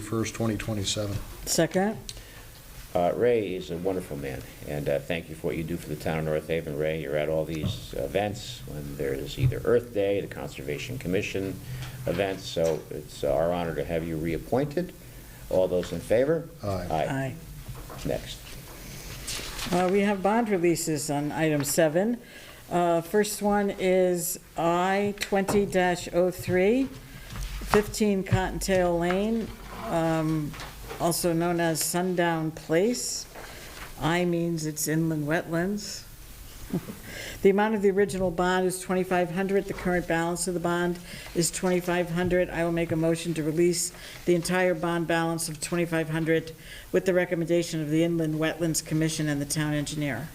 31st, 2027. Second, Uh, Ray is a wonderful man, and uh, thank you for what you do for the town of North Haven. Ray, you're at all these events, when there is either Earth Day, the Conservation Commission events, so it's our honor to have you reappointed. All those in favor? Aye. Aye. aye. Next. Uh, We have bond releases on item seven. Uh, First one is I 20-03, 15 Cottontail Lane, um, also known as Sundown Place. I means it's inland wetlands. The amount of the original bond is 2,500. The current balance of the bond is 2,500. I will make a motion to release the entire bond balance of 2,500 with the recommendation of the Inland Wetlands Commission and the town engineer.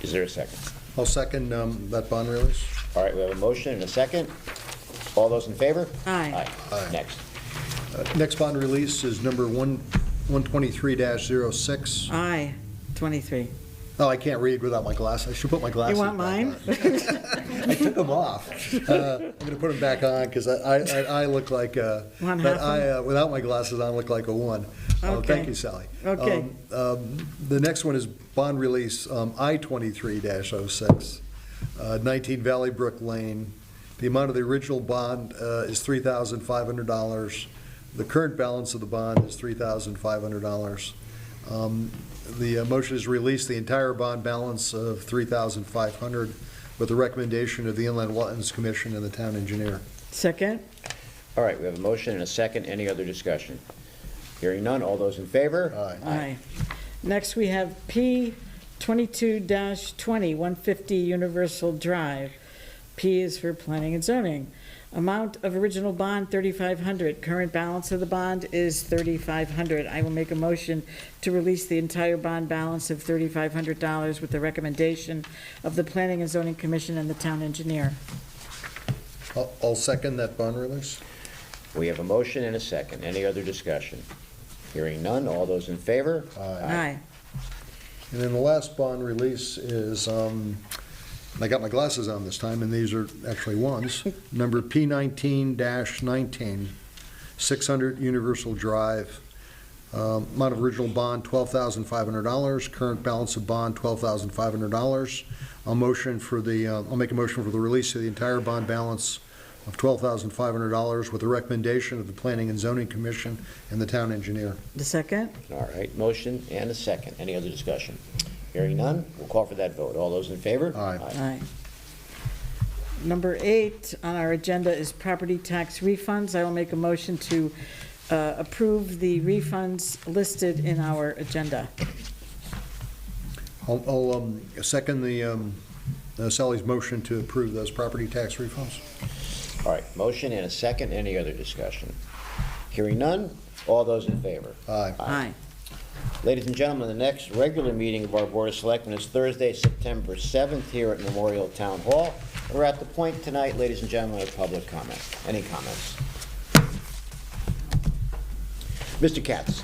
Is there a second? I'll second um, that bond release. All right, we have a motion and a second. All those in favor? Aye. Aye. Next. Uh, Next bond release is number one 123-06. Aye, 23. Oh, I can't read without my glasses. I should put my glasses You back want on. mine? I took them off. Uh, I'm going to put them back on because I, I, I look like, uh, Want but half I, uh, without my glasses on, look like a one. Uh, Okay. Thank you, Sally. Okay. Um, um, The next one is bond release, um, I-23-06, uh, 19 Valley Brook Lane. The amount of the original bond uh, is $3,500. The current balance of the bond is $3,500. Um, The uh, motion is release the entire bond balance of $3,500 with the recommendation of the Inland Wetlands Commission and the town engineer. Second? All right, we have a motion and a second. Any other discussion? Hearing none. All those in favor? Aye. Aye. Next, we have P 22-20, 150 Universal Drive. P is for planning and zoning. Amount of original bond, 3,500. Current balance of the bond is 3,500. I will make a motion to release the entire bond balance of $3,500 with the recommendation of the Planning and Zoning Commission and the town engineer. I'll- I'll second that bond release. We have a motion and a second. Any other discussion? Hearing none, all those in favor? Aye. And then the last bond release is, um, and I got my glasses on this time, and these are actually ones, number P nineteen dash nineteen, six hundred Universal Drive. Um, Amount of original bond, twelve thousand five hundred dollars, current balance of bond, twelve thousand five hundred dollars. I'll motion for the, uh, I'll make a motion for the release of the entire bond balance of twelve thousand five hundred dollars with a recommendation of the Planning and Zoning Commission and the town engineer. The second? All right, motion and a second. Any other discussion? Hearing none, we'll call for that vote. All those in favor? Aye. Aye. Number eight on our agenda is property tax refunds. I will make a motion to uh, approve the refunds listed in our agenda. I'll- I'll um, second the um, uh, Sally's motion to approve those property tax refunds. All right, motion and a second. Any other discussion? Hearing none, all those in favor? Aye. Aye. Ladies and gentlemen, the next regular meeting of our Board of Selectmen is Thursday, September 7th, here at Memorial Town Hall. We're at the point tonight, ladies and gentlemen, of public comment. Any comments? Mr. Katz?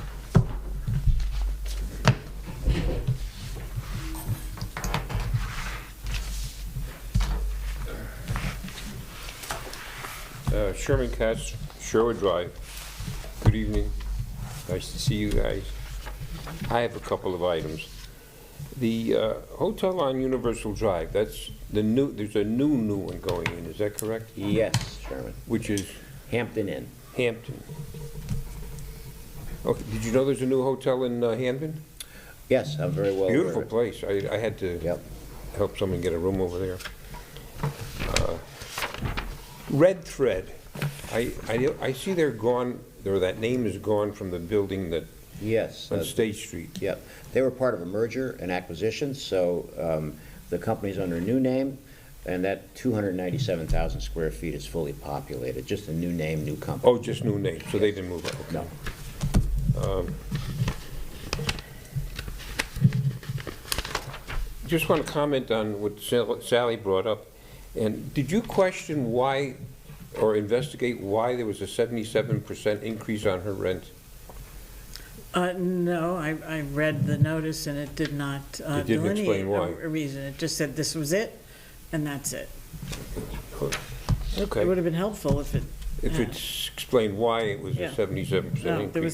Uh, Sherman Katz, Sherwood Drive. Good evening. Nice to see you guys. I have a couple of items. The uh, hotel on Universal Drive, that's the new, there's a new, new one going in, is that correct? Yes, Sherman. Which is Hampton Inn. Hampton. Okay, did you know there's a new hotel in uh, Hampton? Yes, I'm very well aware of Beautiful it. place. I, I had to. Yep. help someone get a room over there. Uh, Red Thread, I, I, I see they're gone, or that name is gone from the building that, Yes, uh, on State Street. yep. They were part of a merger and acquisition, so um, the company's under a new name, and that 297,000 square feet is fully populated, just a new name, new company. Oh, just new name, so they didn't move up. okay. No. Just want to comment on what Sal- Sally brought up. And did you question why, or investigate why there was a 77% increase on her rent? Uh, No, I, I read the notice and it did not uh, It didn't explain delineate why. a- a reason. It just said this was it and that's it. It would Okay, have been helpful if it, if it's explained why it was a Yeah. 77% No, there increase.